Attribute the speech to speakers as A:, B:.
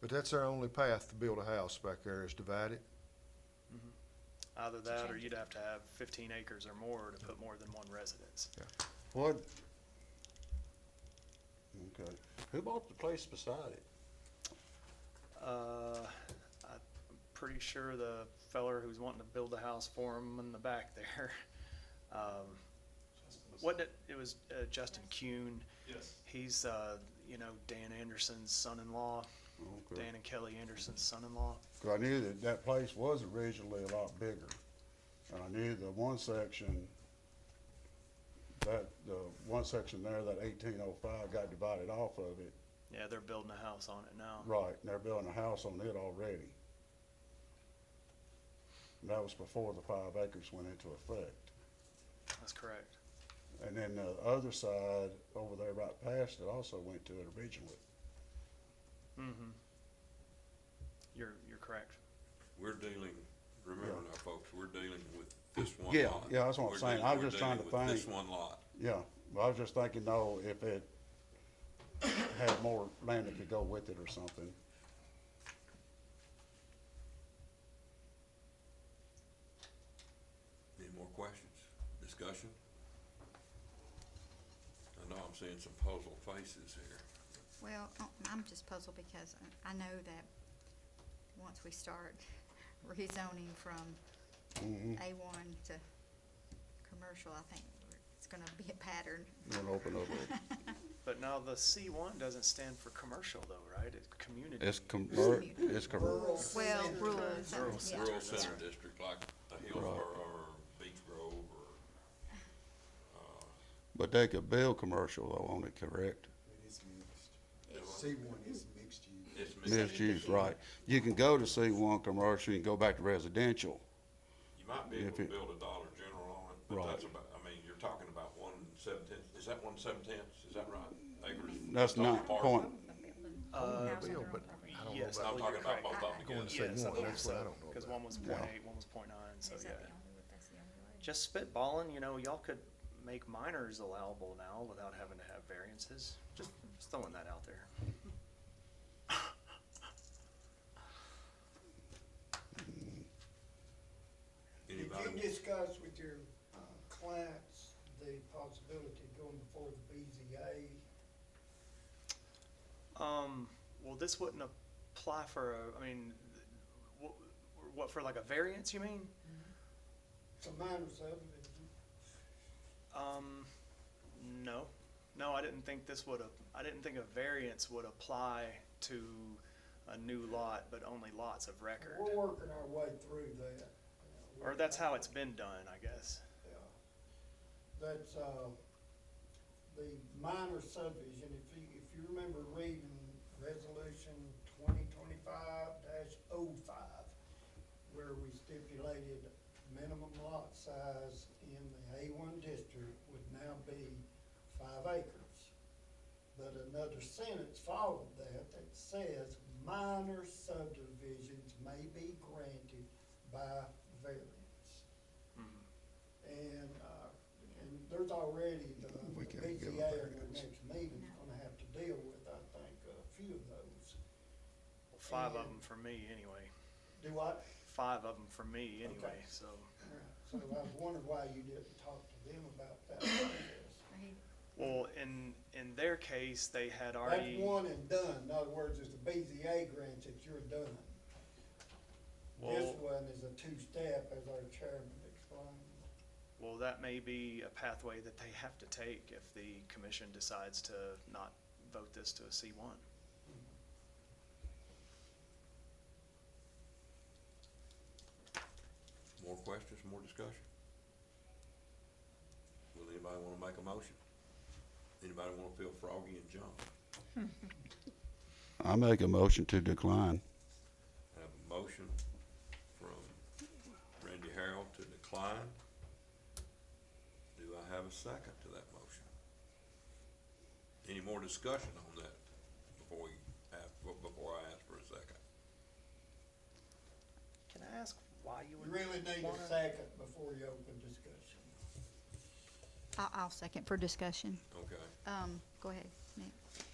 A: But that's our only path to build a house back there is divide it.
B: Either that, or
C: change
B: you'd have to have fifteen acres or more to put more than one residence.
D: What? Okay, who bought the place beside it?
B: Uh, I'm pretty sure the feller who's wanting to build the house for him in the back there, um, what, did- it was uh, Justin Kuhn.
E: Yes.
B: He's, uh, you know, Dan Anderson's son-in-law,
D: Okay.
B: Dan and Kelly Anderson's son-in-law.
D: 'Cause I knew that that place was originally a lot bigger, and I knew the one section, that, the one section there, that eighteen oh five got divided off of it,
B: Yeah, they're building a house on it now.
D: right, and they're building a house on it already. And that was before the five acres went into effect.
B: That's correct.
D: And then the other side over there right past it also went to it originally.
B: Mm-hmm. You're, you're correct.
E: We're dealing, remember now, folks, we're dealing with this one
D: Yeah,
E: lot.
D: yeah, that's what I'm
E: We're
D: saying.
E: dealing-
D: I was
E: we're
D: just trying
E: dealing
D: to
E: with This
D: think.
E: one lot.
D: Yeah, well, I was just thinking, though, if it had more land that could go with it or something.
E: Any more questions, discussion? I know I'm seeing some puzzled faces here.
C: Well, I- I'm just puzzled because I- I know that once we start rezoning from
D: Mm-hmm.
C: A one to commercial, I think we're- it's gonna be a pattern.
D: It'll open up.
B: But now the C one doesn't stand for commercial though, right? It's community.
D: It's convert, it's convert.
C: Well, rural,
B: Rural
C: something, yeah.
E: Rural center district like a Hillsborough or Beach Grove or,
F: But they could build commercial though on it, correct?
G: It is mixed.
C: It's-
G: C one is mixed use.
E: it's mixed.
F: Mixed use, right. You can go to C one commercial, you can go back to residential.
E: You might be able
F: If
E: to
F: it-
E: build a Dollar General on it, but
F: Right.
E: that's about, I mean, you're talking about one seven-tenths, is that one seven-tenths, is that right? Acres.
F: That's
E: total
F: not
E: parcel?
F: point,
B: Uh,
A: Bill, but I don't know
B: yes,
E: No,
A: about
E: I'm talking about both of them
A: going
E: together.
A: to say
B: Yes, I
A: one,
B: believe
A: that's what I
B: so,
A: don't know about.
B: Cause one was point eight, one was point nine, so
C: Is
B: Oh, yeah.
C: that the only, one- that's the only way?
B: Just spitballing, you know, y'all could make minors allowable now without having to have variances. Just, just throwing that out there.
E: Anybody?
H: Did you discuss with your uh, clients the possibility of going before the BZA?
B: Um, well, this wouldn't apply for a, I mean, what, what, for like a variance, you mean?
H: It's a minor subdivision.
B: Um, no, no, I didn't think this would, ap- I didn't think a variance would apply to a new lot, but only lots of record.
H: We're working our way through that.
B: Or that's how it's been done, I guess.
H: Yeah. That's, uh, the minor subdivision, if you, if you remember reading resolution twenty twenty-five dash oh five, where we stipulated minimum lot size in the A one district would now be five acres. But another sentence followed that that says minor subdivisions may be granted by variance. And, uh, and there's already the
F: We
H: the
F: can't give them
H: BZA in the
F: variance.
H: next meeting's gonna have to deal with, I think, a few of those.
B: Well, Five of them for me, anyway.
H: Do I,
B: Five of them for me, anyway,
H: Okay.
B: so.
H: so I was wondering why you didn't talk to them about that process.
C: Or he-
B: Well, in, in their case, they had
H: That's
B: already.
H: one and done, in other words, it's the BZA grant that you're done. This
B: Well-
H: one is a two-step, as our chairman explained.
B: Well, that may be a pathway that they have to take if the commission decides to not vote this to a C one.
E: More questions, more discussion? Will anybody wanna make a motion? Anybody wanna feel froggy and jump?
F: I make a motion to decline.
E: I Have a motion from Randy Harold to decline. Do I have a second to that motion? Any more discussion on that before we, have- before I ask for a second?
B: Can I ask why you
H: You
B: would?
H: really need
B: wanna-
H: a second before you open discussion.
C: I- I'll second for discussion.
E: Okay.
C: Um, go ahead, Nick.